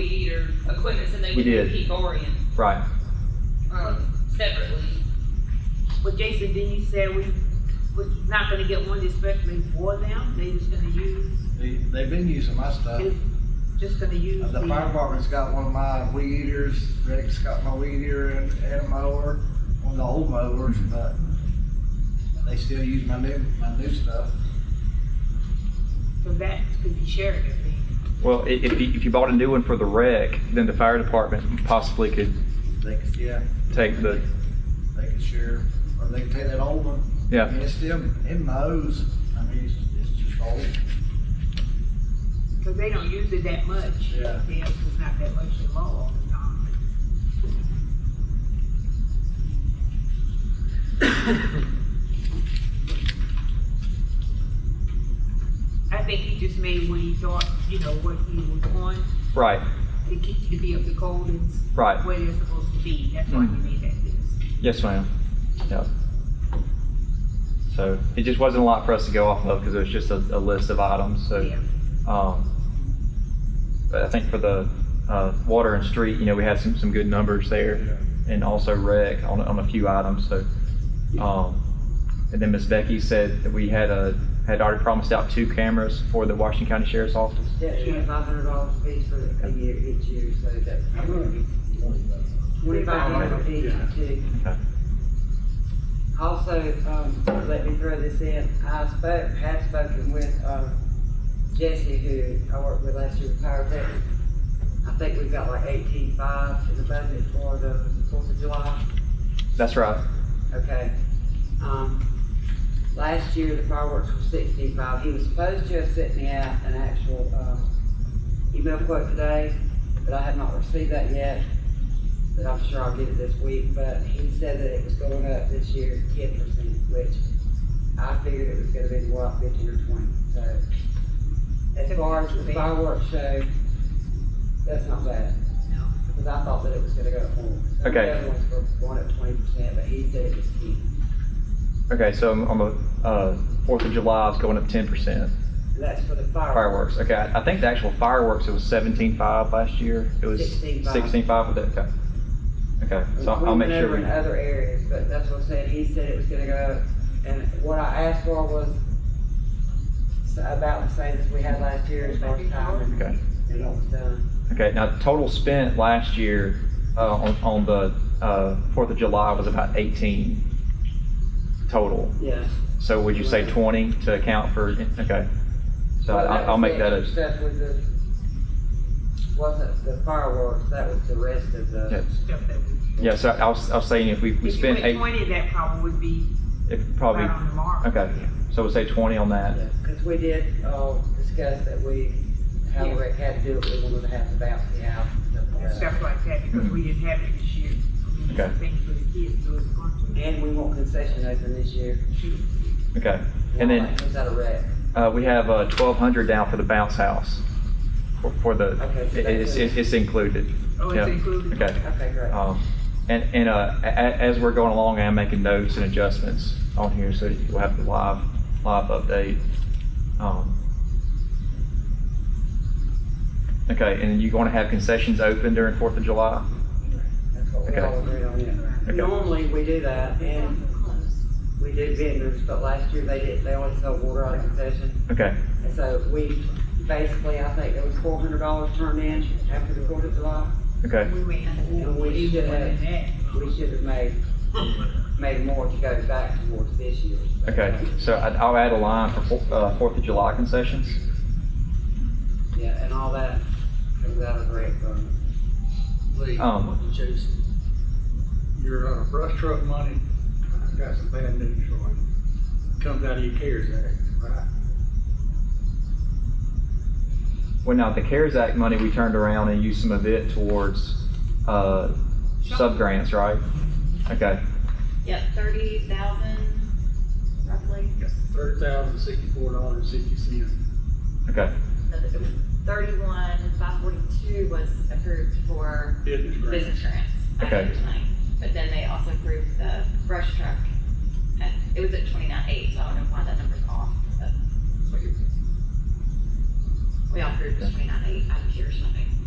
their equipment so they We can did. keep borrowing, Right, um, separately. Well, Jason, then you said we, we're not gonna get one especially for them, they just gonna use, They, they've been using my stuff. is- just gonna use Uh, The fire the. department's got one of my weed eaters, Rick's got my weed eater and, and a mower, on the old mowers, but they still use my new, my new stuff. So that could be shared, I think. well, i- if you, if you bought a new one for the wreck, then the fire department possibly could They could, yeah, take the, they could share, or they could take that old one. I yeah, mean, it's still, it mows, I mean, it's, it's just old. Cause they don't use it that much. Yeah. They also it's not that much to mow all the time. I think he just made what he thought, you know, what he was on, right, to keep, to be up to code and s- right. Mm. where they're supposed to be, that's why he made that list. Yes, ma'am. Yeah. So it just wasn't a lot for us to go off of because it was just a, a list of items, so. Yeah. Um, But I think for the uh, water and street, you know, we had some, some good numbers there and also rec on, on a few items, so. um, And then Miss Becky said that we had a, had already promised out two cameras for the Washington County Sheriff's Office. That's twenty-five hundred dollars fees for a year, each year, so that's. Twenty-five hundred each, too. Okay. Also, um, let me throw this in, I spoke, had spoken with, um, Jesse, who I worked with last year with Pyrotech. I think we've got like eighteen-five in the budget for the Fourth of July. That's right. Okay. Um, last year, the fireworks were sixty-five. He was supposed to have sent me out an actual, um, email quote today, but I have not received that yet. But I'm sure I'll get it this week, but he said that it was going up this year ten percent, which I figured it was gonna be what, fifteen or twenty, so. As far as the fireworks show, that's not bad. No. Because I thought that it was gonna go up more. So Okay. The other ones were going up twenty percent, but he said it was ten. Okay, so on the uh, Fourth of July, it's going up ten percent. That's for the fireworks. Fireworks, okay. I I think the actual fireworks, it was seventeen-five last year. It was 16.5. sixteen-five with it, okay. Okay, so I'll I'll make sure. We we went over in other areas, but that's what I'm saying, he said it was gonna go, up. and what I asked for was s- about the same as we had last year as far as time and Okay, and what was done. okay. Now, total spent last year uh, on, on the uh, Fourth of July was about eighteen total. Yeah. So would you say twenty to account for, okay. So Well, I'll, I'll make that was a, the extra Stuff with the, wasn't the fireworks, that was the rest of Yeah. the, Stuff that we. yeah, so I was, I was saying if we, we If you spent went eight, Twenty, that probably would be it right probably, on the mark. okay. So we'll say twenty on that. yeah, cause we did, uh, discuss that we, how Yeah. we had to do it, we wanted to have the bouncy house and stuff like and that. stuff like that, because we didn't have it this year. We need Mm. Okay. some Things for the kids, so it's going to. And we want concession open this year. Okay. And then Is that a wreck? Uh, we have, uh, twelve hundred down for the bounce house, for, for the, Okay, so it- it's, that's- it's included, Oh, Yeah. it's included? okay. Okay, great. Um, and, and, uh, a, a- as we're going along, I'm making notes and adjustments on here, so we'll have the live, live update. Um, Okay, and you're gonna have concessions open during Fourth of July? That's what we all agreed on, yeah. Okay. Normally, we do that, and we do vendors, but last year they did, they only sold water on concession. Okay, And so we, basically, I think there was four hundred dollars turned in after the Fourth of July. okay, We went. And we even should more have- than that. We should have made, made more to go back towards this year. okay, so I- I'll add a line for, Four- uh, Fourth of July concessions, Yeah, and all that comes out of rec fund. Lee, Um. what did you say? Your uh, brush truck money, I've got some bad news for you. Comes out of your CARES Act, right? Well, now, the CARES Act money, we turned around and used some of it towards, uh, sub-grants, right? Okay, Yep, thirty thousand roughly, Thirty thousand sixty-four dollars and sixty cents. okay, thirty-one, five forty-two was approved for Business grant. business grants. back in Okay. 20. But then they also approved the brush truck, at it was at twenty-nine eight, so I don't know why that number's off, but. We all approved the twenty-nine eight out of pure funding.